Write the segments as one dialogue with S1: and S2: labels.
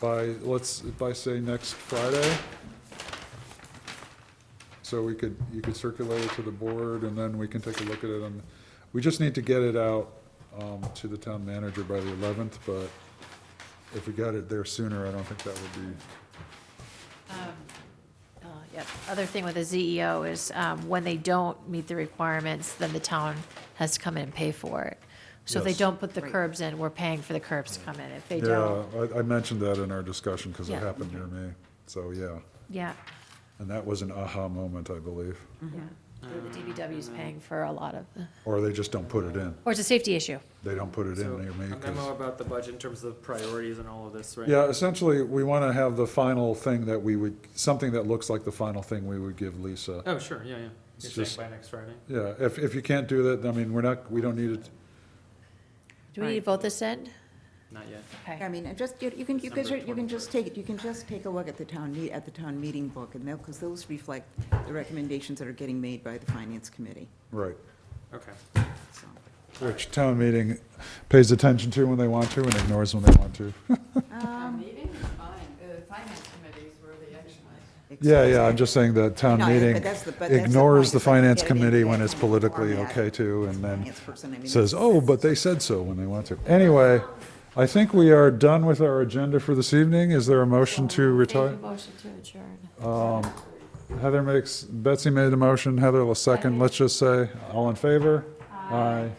S1: by, let's, by say next Friday. So we could, you could circulate it to the board and then we can take a look at it and, we just need to get it out um, to the town manager by the eleventh, but if we got it there sooner, I don't think that would be,
S2: Uh, Yep. Other thing with the ZEO is um, when they don't meet the requirements, then the town has to come in and pay for it. So if they
S1: Yes.
S2: don't put the curbs in, we're paying for the curbs to come in. If they don't,
S1: yeah, I, I mentioned that in our discussion because it
S2: Yeah.
S1: happened near me, so yeah.
S2: yeah,
S1: And that was an aha moment, I believe,
S2: yeah. The DBW's paying for a lot of, the-
S1: or they just don't put it in,
S2: or it's a safety issue.
S1: they don't put it
S3: So,
S1: in near me
S3: a memo
S1: 'cause-
S3: about the budget in terms of priorities and all of this, right?
S1: Yeah, essentially, we want to have the final thing that we would, something that looks like the final thing we would give Lisa.
S3: Oh, sure, yeah, yeah.
S1: It's
S3: You're saying
S1: just-
S3: by next Friday?
S1: Yeah, if, if you can't do that, I mean, we're not, we don't need it,
S2: Do we need to vote this in?
S3: Not yet.
S2: Okay.
S4: I mean, I just, you you can, you can,
S3: December
S4: you can just take, it. you can just take a look at the town, meet- at the town meeting book, and they'll, because those reflect the recommendations that are getting made by the finance committee,
S1: right.
S3: Okay.
S4: so.
S1: Which town meeting pays attention to when they want to and ignores when they want to.
S5: Town meeting is fine, the finance committee is where the action was.
S1: Yeah, yeah, I'm just saying that town
S4: No, but
S1: meeting
S4: that's the- but that's the
S1: ignores
S4: point,
S1: the
S4: is that you
S1: finance
S4: get it in
S1: committee
S4: that
S1: when it's
S4: kind of
S1: politically
S4: format.
S1: okay to, and then
S4: Finance person, I mean,
S1: says,
S4: that's-
S1: oh, but they said so when they want to. Anyway, I think we are done with our agenda for this evening. Is there a motion to retire? Oh.
S2: Make a Motion to adjourn.
S1: Um, Heather makes, Betsy made a motion, Heather will second, let's just say, all in favor? Aye.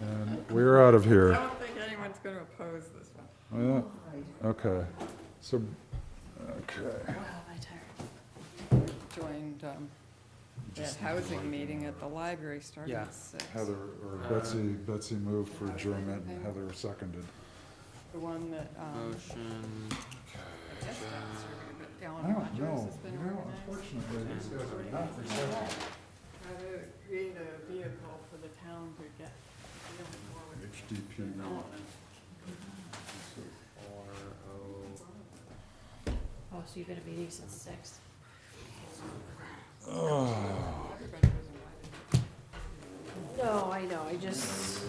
S1: And we're out of
S5: I
S1: here. Oh,
S5: don't think anyone's gonna oppose this one.
S1: Yeah, Okay, so, okay,
S2: Wow, am I Oh, tired?
S5: Joined, um, that
S1: uh,
S5: housing meeting at the library starting
S3: Yeah.
S5: at six.
S1: Heather, or Betsy, Betsy moved for adjournment, and Heather seconded.
S5: The one that, um,
S3: Motion.
S5: I guess that's organi- but
S1: I
S5: Alan
S1: don't
S5: Rogers
S1: know,
S5: has been
S1: you know,
S5: organized.
S1: unfortunately, these guys are not receptive.
S5: Try to create a vehicle for the town to get, you know, forward.
S1: HDP.
S2: Oh, so you've been at meetings since six.
S1: Oh.
S5: Everybody was invited.
S2: No, I know, I just,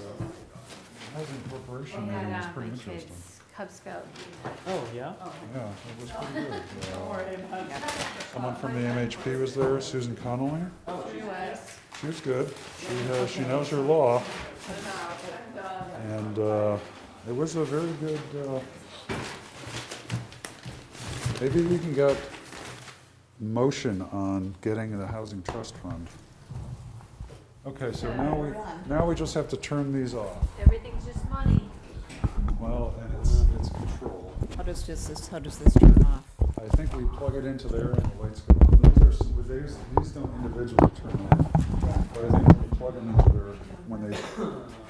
S1: Housing
S2: I
S1: Corporation meeting was
S2: had uh,
S1: pretty
S2: my
S1: interesting.
S2: kids' Cub Scout meeting.
S3: Oh, yeah?
S1: Yeah, it was pretty good. Uh, Someone from the MHP was there, Susan Connolly. Oh, She was good. She, uh, she knows her law. And, uh, it was a very good, uh, maybe we can get motion on getting the housing trust fund. Okay, so now we, now we just have to turn these off.
S2: Everything's just money.
S1: Well, and it's, it's control.
S4: How does just this, how does this turn off?
S1: I think we plug it into there and the lights go on. Those are, s- these, these don't individually turn on. But I think when we plug them into there, when they,